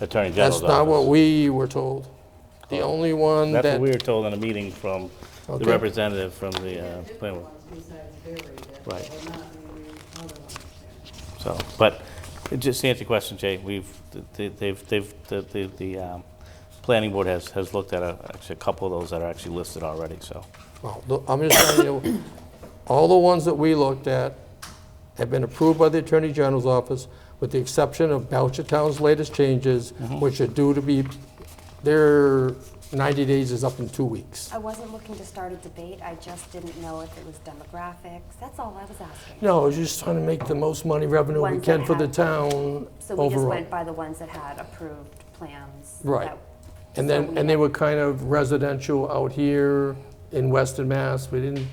Attorney General's That's office. not what we were told. The only one That's what we that, were told in a meeting from the Okay. representative from the uh, planning board. besides buried, that Right. were not in the other ones there. So, but it just to answer your question, Jay, we've, they- they've, they've, the, the, the um, planning board has, has looked at a, actually a couple of those that are actually listed already, so. well, look, I'm just telling you, all the ones that we looked at have been approved by the Attorney General's office, with the exception of Belcher Town's latest changes, which are due to be, their 90 days is up in two weeks. I wasn't looking to start a debate, I just didn't know if it was demographics, that's all I was asking. No, I was just trying to make the most money revenue we Ones that can for the have- town So we just overall. went by the ones that had approved plans. Right. that- And so then, we and they don't- were kind of residential out here in Western Mass. We didn't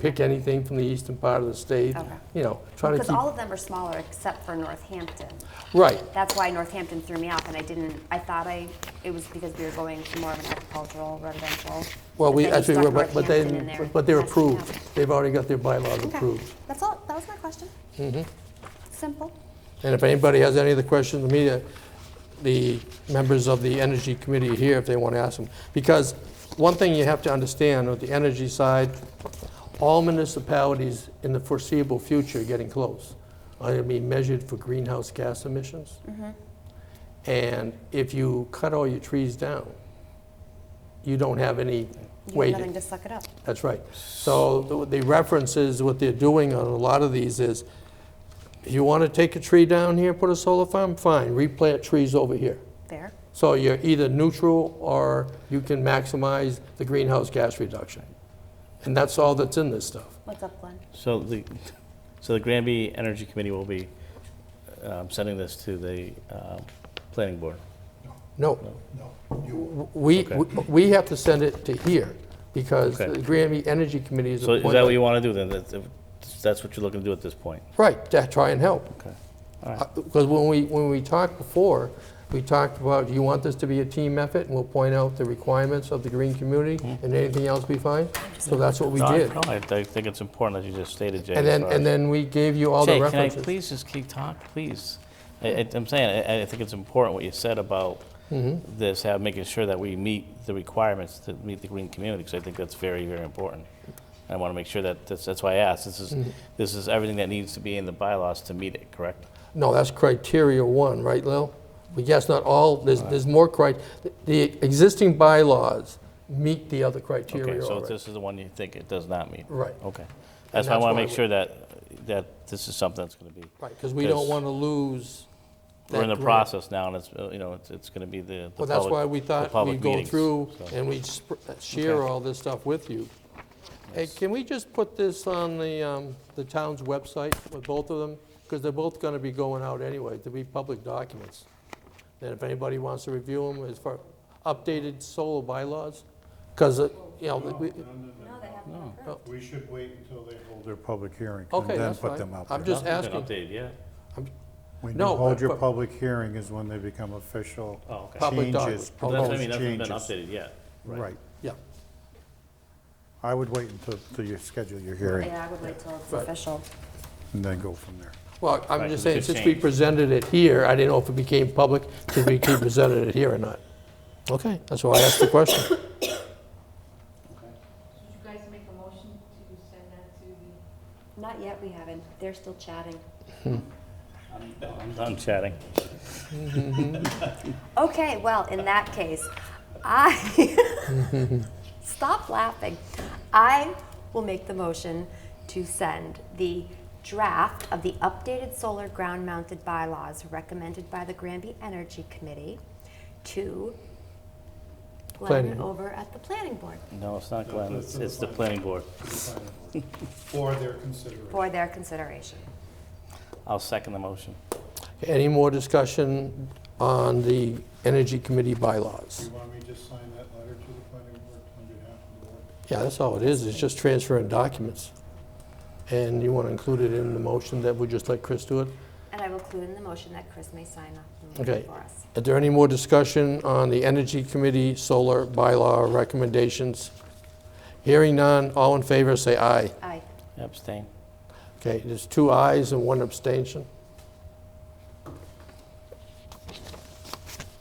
pick anything from the eastern part of the state, Okay. you know, trying to Because keep, all of them are smaller except for Northampton. right. That's why Northampton threw me off and I didn't, I thought I, it was because we were going to more of an agricultural residential. Well, but we then you actually, stuck were, but but they, Northampton in there. but they're That's what I approved. know. They've already got their bylaws Okay. approved. Mm-hmm. That's all, that was my question. Simple. And if anybody has any other questions, the media, the members of the Energy Committee are here if they want to ask them. Because one thing you have to understand with the energy side, all municipalities in the foreseeable future are getting close. Are going to be measured for greenhouse gas emissions. And if you cut all your trees down, you don't have any You have weight. nothing to suck it up. That's right. So the the reference is, what they're doing on a lot of these is, if you want to take a tree down here, put a solar farm, fine, replant trees over here. Fair. So you're either neutral or you can maximize the greenhouse gas reduction. And that's all that's in this stuff. What's up, Glenn? So the, so the Granby Energy Committee will be um, sending this to the um, planning board. No, No, you, we, Okay. we- we have to send it to here because the Okay. Grammy Energy Committee is So is that what appointed. you want to do then? That's- That's what you're looking to do at this point? Right, to try and help. Okay, all right. Because when we, when we talked before, we talked about, do you want this to be a team effort? And we'll point out the requirements of the green community Mm-hmm. and anything else we find. So that's what we No, I- did. no, I I think it's important, as you just stated, Jay. And as then, far and as- then we gave you all the Jay, can I references. please just keep talking, please? I- I- I'm saying, I I think it's important what you said about Mm-hmm. this, have, making sure that we meet the requirements to meet the green community, because I think that's very, very important. I want to make sure that, that's that's why I asked, this is, Mm-hmm. this is everything that needs to be in the bylaws to meet it, correct? No, that's criteria one, right, Lil? But yes, not all, there's, there's more cri, the existing bylaws meet the other Okay, criteria so already. this is the one you think it does not meet? Right. Okay. That's why I that's want why to make we- sure that, that this is something that's going to be, Right, because we don't Because- want to lose we're in the that grant. process now, and it's, uh, you know, it's- it's going to be the the Well, public. that's why we the thought public we'd go meetings, through so. and we'd sp- share all this stuff with you. Hey, can we just put this on the, um, the town's website with both of them? Because they're both going to be going out anyway, to be public documents. Then if anybody wants to review them as far, updated solar bylaws, because, you know, we- we should wait until they hold their public hearing. okay, And then that's put fine. them out I'm there. just Nothing's been asking. updated yet. When you no, hold your but- public hearing is when they become official. Oh, okay. Public Changes, doc- Well, That's what I proposed mean, nothing's been changes. updated yet. Right. Yeah, I would wait until, until you schedule your hearing Yeah, I would wait till it's Right. official. and then go from there. well, I'm Right, 'cause just it saying, could since we change. presented it here, I didn't know if it became public, did we keep presented it here or not? Okay, that's why I asked the question. Did you guys make a motion to send that to the Not yet, we haven't. They're still chatting. I'm done chatting. Okay, well, in that case, I, stop laughing. I will make the motion to send the draft of the updated solar ground mounted bylaws recommended by the Granby Energy Committee to Glenn Planning. over at the planning board No, it's not Glenn, it's, it's the planning board. For their consideration. for their consideration. I'll second the motion. Any more discussion on the Energy Committee bylaws? You want me to just sign that letter to the planning board on behalf of the board? Yeah, that's all it is, it's just transferring documents. And you want to include it in the motion that we just let Chris do it? And I will include in the motion that Chris may sign up and read Okay. it for us. Is there any more discussion on the Energy Committee solar bylaw recommendations? Hearing none, all in favor, say aye. Aye. Abstain. Okay, there's two ayes and one abstention.